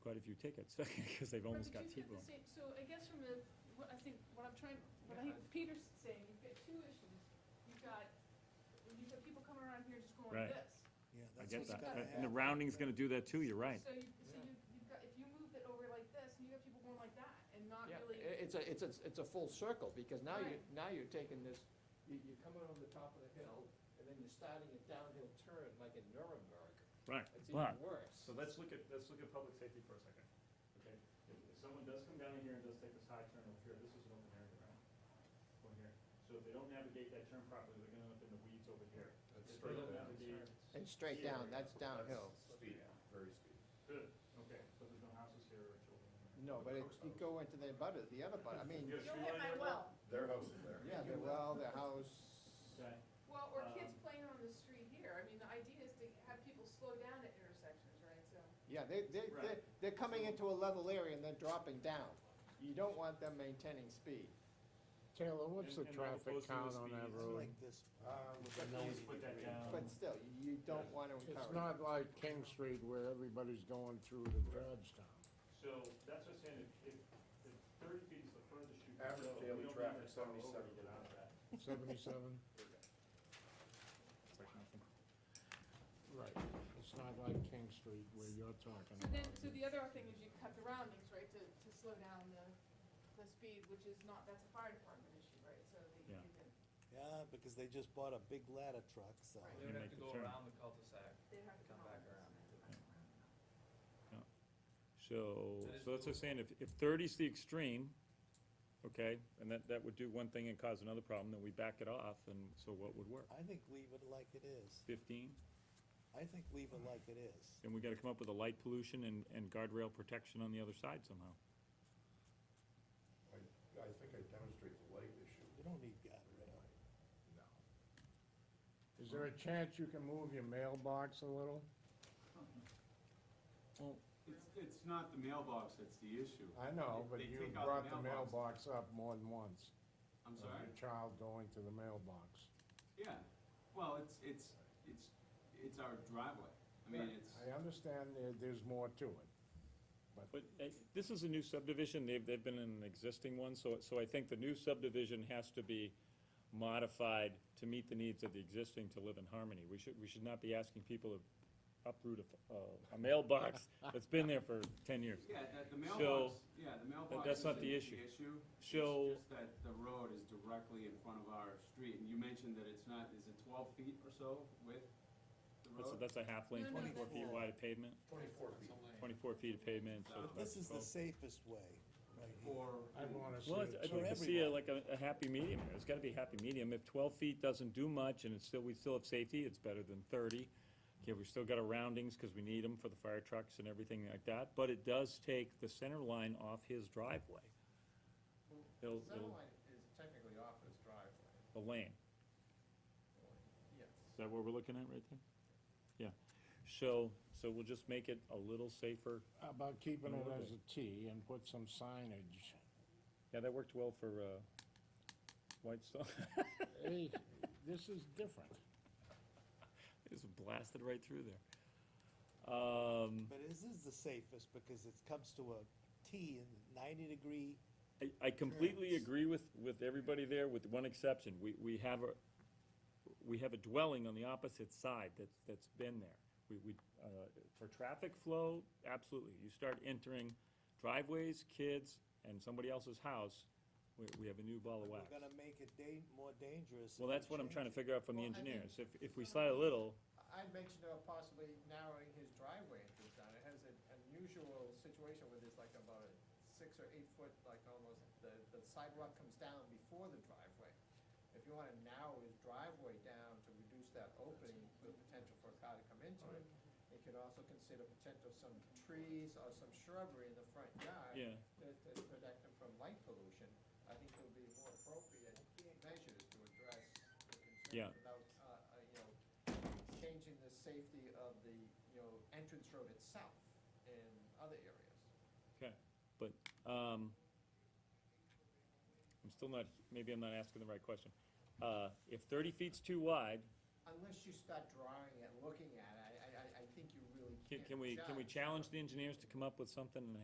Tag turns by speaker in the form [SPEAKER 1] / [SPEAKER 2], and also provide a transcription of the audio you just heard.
[SPEAKER 1] few tickets, because they've
[SPEAKER 2] Right,
[SPEAKER 1] almost
[SPEAKER 2] but
[SPEAKER 1] got
[SPEAKER 2] you've the
[SPEAKER 1] T-boned.
[SPEAKER 2] same- So I guess from a, what I think, what I'm trying, what I think
[SPEAKER 3] Yeah,
[SPEAKER 2] Peter's saying, you've got two issues. You've got, you've got people coming around here just going
[SPEAKER 1] Right.
[SPEAKER 2] this.
[SPEAKER 4] Yeah,
[SPEAKER 1] I
[SPEAKER 4] that's
[SPEAKER 1] get
[SPEAKER 4] what's
[SPEAKER 1] that,
[SPEAKER 2] gotta
[SPEAKER 4] gotta
[SPEAKER 1] Uh,
[SPEAKER 4] happen.
[SPEAKER 1] and the rounding's gonna do that too, you're right.
[SPEAKER 2] So you, so
[SPEAKER 3] Yeah.
[SPEAKER 2] you, you've got, if you move it over like this, and you got people going like that, and not
[SPEAKER 3] Yeah,
[SPEAKER 2] really.
[SPEAKER 3] i- it's a, it's a, it's a full circle, because now you,
[SPEAKER 2] Right.
[SPEAKER 3] now you're taking this, you, you're coming on the top of the hill, and then you're starting a downhill turn like in Nuremberg.
[SPEAKER 1] Right,
[SPEAKER 3] It's
[SPEAKER 1] but-
[SPEAKER 3] even worse.
[SPEAKER 1] So let's look at, let's look at public safety for a second, okay? If, if someone does come down here and does take this high turn over here, this is an open area, right? Over here. So if they don't navigate that turn properly, they're gonna end up in the weeds over here. If they
[SPEAKER 5] straight
[SPEAKER 1] don't
[SPEAKER 5] down.
[SPEAKER 1] navigate-
[SPEAKER 3] And straight down, that's downhill.
[SPEAKER 5] Speed, very speed.
[SPEAKER 1] Good, okay, so there's no houses here or children. here.
[SPEAKER 3] No, but it, you go into the butter, the other butter, I mean,
[SPEAKER 1] You got a
[SPEAKER 2] Don't
[SPEAKER 1] tree
[SPEAKER 2] hit
[SPEAKER 1] line
[SPEAKER 2] my
[SPEAKER 1] there,
[SPEAKER 2] well.
[SPEAKER 5] Their house is there.
[SPEAKER 3] yeah, the well, the house,
[SPEAKER 1] Okay,
[SPEAKER 2] Well, or kids
[SPEAKER 1] Um,
[SPEAKER 2] playing on the street here. I mean, the idea is to have people slow down at intersections, right, so.
[SPEAKER 3] yeah, they, they, they're,
[SPEAKER 1] Right.
[SPEAKER 3] they're coming into a level area and then dropping down. You don't want them maintaining speed.
[SPEAKER 6] Taylor, what's the
[SPEAKER 1] And- and that goes
[SPEAKER 6] traffic
[SPEAKER 1] through
[SPEAKER 6] count
[SPEAKER 1] the
[SPEAKER 6] on that
[SPEAKER 1] speeds.
[SPEAKER 4] It's
[SPEAKER 6] road?
[SPEAKER 4] like this.
[SPEAKER 1] please put that down.
[SPEAKER 3] But still, you don't want to encourage.
[SPEAKER 6] It's not like King Street where everybody's going through to Georgetown.
[SPEAKER 1] So that's what I'm saying, if, if, if thirty feet is the furthest you can go.
[SPEAKER 5] Average
[SPEAKER 1] we
[SPEAKER 5] daily
[SPEAKER 1] don't need
[SPEAKER 5] traffic,
[SPEAKER 1] to follow over to
[SPEAKER 5] 77.
[SPEAKER 1] get out of that.
[SPEAKER 6] Seventy-seven? Right, it's not like King Street where you're talking
[SPEAKER 2] So then,
[SPEAKER 6] about.
[SPEAKER 2] so the other thing is you cut the roundings, right, to, to slow down the, the speed, which is not, that's a fire department issue, right, so that you
[SPEAKER 1] Yeah.
[SPEAKER 2] can,
[SPEAKER 4] Yeah, because they just bought a big ladder truck, so.
[SPEAKER 2] Right.
[SPEAKER 7] They would
[SPEAKER 1] make
[SPEAKER 7] have to
[SPEAKER 1] the
[SPEAKER 7] go
[SPEAKER 1] turn.
[SPEAKER 7] around the cul-de-sac.
[SPEAKER 2] they have to come
[SPEAKER 7] Come
[SPEAKER 2] out.
[SPEAKER 7] back around.
[SPEAKER 1] So,
[SPEAKER 7] That is
[SPEAKER 1] so that's what I'm saying, if, if thirty's the extreme, okay, and that, that would do one thing and cause another problem, then we back it off, and so what would work?
[SPEAKER 4] I think leave it like it is.
[SPEAKER 1] Fifteen?
[SPEAKER 4] I think leave it like it is.
[SPEAKER 1] And we gotta come up with a light pollution and, and guardrail protection on the other side somehow.
[SPEAKER 5] I, I think I demonstrate the light issue.
[SPEAKER 4] You don't need guardrail.
[SPEAKER 5] No.
[SPEAKER 6] Is there a chance you can move your mailbox a little?
[SPEAKER 8] It's, it's not the mailbox that's the issue.
[SPEAKER 6] I know, but
[SPEAKER 8] They
[SPEAKER 6] you
[SPEAKER 8] take out
[SPEAKER 6] brought the mailbox up more than once.
[SPEAKER 8] I'm
[SPEAKER 6] of
[SPEAKER 8] sorry?
[SPEAKER 6] Your child going to the mailbox.
[SPEAKER 8] Yeah, well, it's, it's, it's, it's our driveway. I mean, it's,
[SPEAKER 6] I understand there, there's more to it.
[SPEAKER 1] But uh, this is a new subdivision, they've, they've been in an existing one, so, so I think the new subdivision has to be modified to meet the needs of the existing to live in harmony. We should, we should not be asking people to uproot a, a mailbox that's been there for ten years.
[SPEAKER 8] yeah, that, the mailbox, yeah, the mailbox
[SPEAKER 1] that's not
[SPEAKER 8] isn't
[SPEAKER 1] the
[SPEAKER 8] the
[SPEAKER 1] issue.
[SPEAKER 8] issue.
[SPEAKER 1] So-
[SPEAKER 8] It's just that the road is directly in front of our street, and you mentioned that it's not, is it twelve feet or so width? The
[SPEAKER 1] That's,
[SPEAKER 8] road?
[SPEAKER 1] that's a half lane,
[SPEAKER 2] No, no,
[SPEAKER 1] twenty-four feet
[SPEAKER 4] that's-
[SPEAKER 1] wide of pavement,
[SPEAKER 5] Twenty-four feet.
[SPEAKER 1] twenty-four feet of pavement, so.
[SPEAKER 8] But
[SPEAKER 4] This is the
[SPEAKER 1] 12.
[SPEAKER 4] safest way, right here.
[SPEAKER 8] Or,
[SPEAKER 6] I wanna see
[SPEAKER 1] Well, it's- I'd
[SPEAKER 6] it too.
[SPEAKER 1] like to see a- like a, a happy medium here, it's gotta be a happy medium, if twelve feet doesn't do much and it's still, we still have safety, it's better than thirty. Okay, we've still got our roundings, cause we need them for the fire trucks and everything like that, but it does take the center line off his driveway, They'll-
[SPEAKER 3] The center
[SPEAKER 1] they'll-
[SPEAKER 3] line is technically off his driveway.
[SPEAKER 1] the lane,
[SPEAKER 3] Yes.
[SPEAKER 1] is that what we're looking at right there? Yeah, so, so we'll just make it a little safer,
[SPEAKER 6] How About keeping it
[SPEAKER 1] Okay.
[SPEAKER 6] as a T and put some signage.
[SPEAKER 1] yeah, that worked well for, uh, White Stone,
[SPEAKER 6] Hey, this is different.
[SPEAKER 1] it's blasted right through there. Um,
[SPEAKER 4] But this is the safest because it comes to a T in ninety degree.
[SPEAKER 1] I, I completely
[SPEAKER 4] Correct.
[SPEAKER 1] agree with, with everybody there, with one exception. We, we have a, we have a dwelling on the opposite side that's, that's been there. We, we, uh, for traffic flow, absolutely. You start entering driveways, kids, and somebody else's house, we, we have a new ball of
[SPEAKER 4] We're
[SPEAKER 1] wax.
[SPEAKER 4] gonna make it da- more dangerous.
[SPEAKER 1] Well,
[SPEAKER 4] if we
[SPEAKER 1] that's what I'm trying
[SPEAKER 4] change
[SPEAKER 1] to
[SPEAKER 4] it.
[SPEAKER 1] figure out from the
[SPEAKER 3] Well, I think-
[SPEAKER 1] engineers. If, if we slide a little,
[SPEAKER 3] I mentioned about possibly narrowing his driveway into town. It has an unusual situation where there's like about a six or eight foot, like almost, the, the sidewalk comes down before the driveway. If you wanna narrow his driveway down to reduce that opening, the potential for a car to come into it, you could also consider potential some trees or some shrubbery in the front yard
[SPEAKER 1] yeah,
[SPEAKER 3] to, to protect them from light pollution, I think it would be more appropriate measures to address the
[SPEAKER 1] Yeah.
[SPEAKER 3] concerns without, uh, uh, you know, changing the safety of the, you know, entrance road itself in other areas.
[SPEAKER 1] okay. But, um, I'm still not, maybe I'm not asking the right question. Uh, if thirty feet's too wide,
[SPEAKER 3] Unless you start drawing and looking at it, I, I, I- I think you really
[SPEAKER 1] Can, can we, can we challenge the engineers to come up with something